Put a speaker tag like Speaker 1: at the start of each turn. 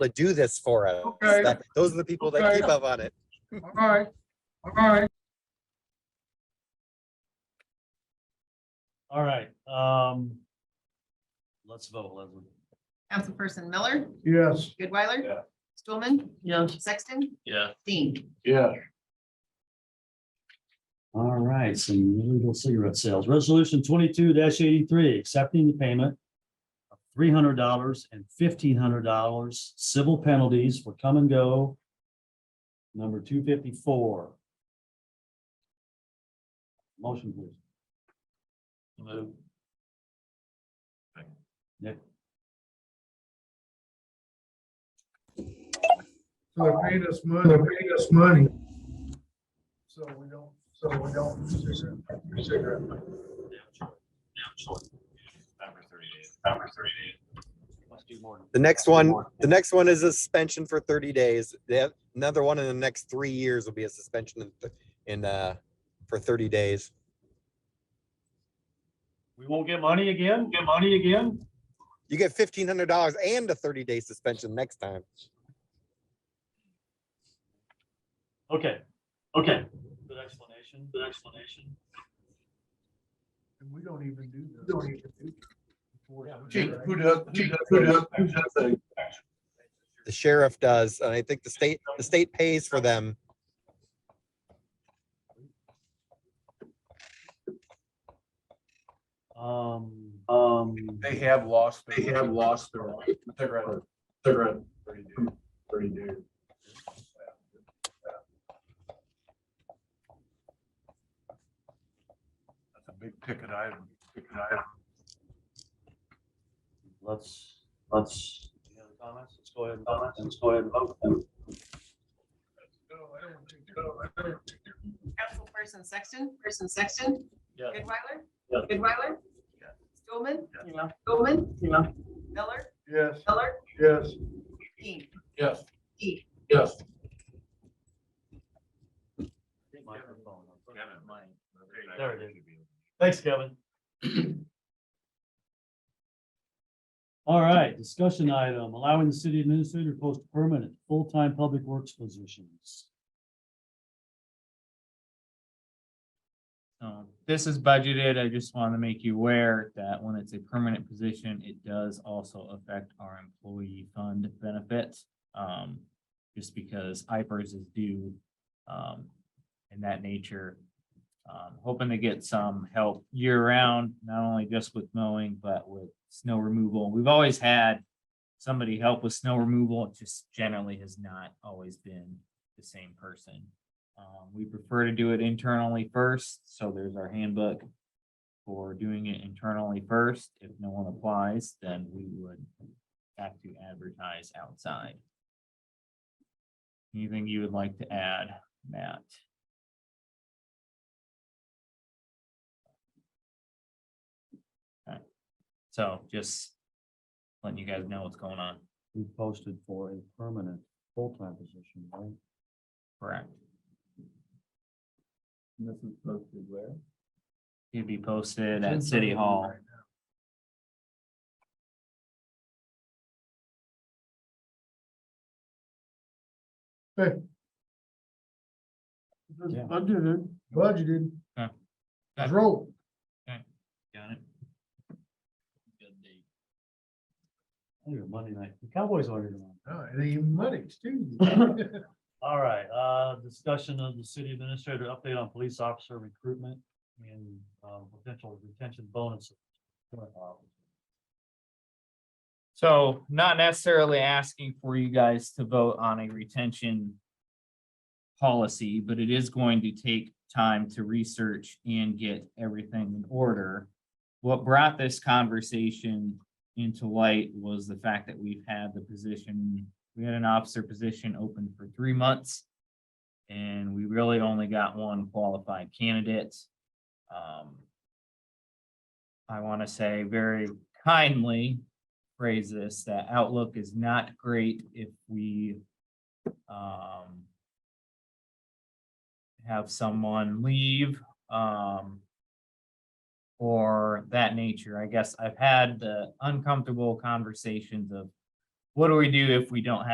Speaker 1: to do this for us.
Speaker 2: Okay.
Speaker 1: That- Those are the people that
Speaker 2: Okay.
Speaker 1: keep up on it.
Speaker 2: All right, all right.
Speaker 3: All right, um. Let's vote, Leslie.
Speaker 4: Councilperson Miller,
Speaker 2: Yes.
Speaker 4: Goodweiler?
Speaker 3: Yeah.
Speaker 4: Stulman?
Speaker 3: Yes.
Speaker 4: Sexton?
Speaker 3: Yeah.
Speaker 4: Dean?
Speaker 2: Yeah.
Speaker 3: All right, some illegal cigarette sales. Resolution twenty-two eighty-three, accepting the payment of three hundred dollars and fifteen hundred dollars civil penalties for come and go. Number two fifty-four. Motion please. Move. Nick,
Speaker 2: So they paid us money. They paid us money. So we don't, so we don't do cigarette, cigarette.
Speaker 3: let's do more.
Speaker 1: The next one, the next one is a suspension for thirty days. They have another one in the next three years will be a suspension in th- in uh for thirty days.
Speaker 3: We won't get money again? Get money again?
Speaker 1: You get fifteen hundred dollars and a thirty day suspension next time.
Speaker 3: Okay, okay. Good explanation, good explanation.
Speaker 2: And we don't even do this. Don't even do.
Speaker 5: Gee, who does, who does, who does, who does the,
Speaker 1: The sheriff does, and I think the state, the state pays for them.
Speaker 3: Um, um,
Speaker 5: they have lost, they have lost their. They're at, they're at thirty days. Thirty days. That's a big ticket item, ticket item.
Speaker 3: let's, let's. Any other comments? Let's go ahead and vote. Let's go ahead and vote. then.
Speaker 4: Councilperson Sexton, person Sexton?
Speaker 3: Yeah.
Speaker 4: Goodweiler?
Speaker 3: Yeah.
Speaker 4: Goodweiler?
Speaker 5: Yeah.
Speaker 4: Stulman?
Speaker 3: Yeah.
Speaker 4: Stulman? Miller?
Speaker 2: Yes,
Speaker 4: Miller?
Speaker 2: yes.
Speaker 4: Dean?
Speaker 5: Yes,
Speaker 4: Dean?
Speaker 5: yes.
Speaker 3: Microphone. There it is. Thanks, Kevin. All right, discussion item, allowing the city administrator to post permanent full-time public works positions.
Speaker 6: Um, this is budgeted. I just want to make you aware that when it's a permanent position, it does also affect our employee fund benefit. Um, just because IPERS is due, um, in that nature. Um, hoping to get some help year round, not only just with mowing, but with snow removal. We've always had somebody help with snow removal. It just generally has not always been the same person. Um, we prefer to do it internally first, so there's our handbook for doing it internally first. If no one applies, then we would have to advertise outside. Anything you would like to add, Matt? Okay. So just letting you guys know what's going on,
Speaker 3: We posted for a permanent full-time position, right?
Speaker 6: correct?
Speaker 5: This is posted where?
Speaker 6: It'd be posted at City Hall.
Speaker 3: Yeah.
Speaker 2: Budgeted. Budgeted.
Speaker 6: Yeah.
Speaker 2: Let's roll.
Speaker 6: Got it?
Speaker 3: Oh, your Monday night, the Cowboys are here tomorrow.
Speaker 2: Oh, it ain't even money, it's Tuesday.
Speaker 3: All right, uh, discussion of the city administrator update on police officer recruitment and, uh, potential retention bonuses.
Speaker 6: So not necessarily asking for you guys to vote on a retention policy, but it is going to take time to research and get everything in order. What brought this conversation into light was the fact that we've had the position, we had an officer position open for three months. And we really only got one qualified candidate. Um, I want to say very kindly, phrase this, that outlook is not great if we um have someone leave, um or that nature. I guess I've had the uncomfortable conversations of what do we do if we don't have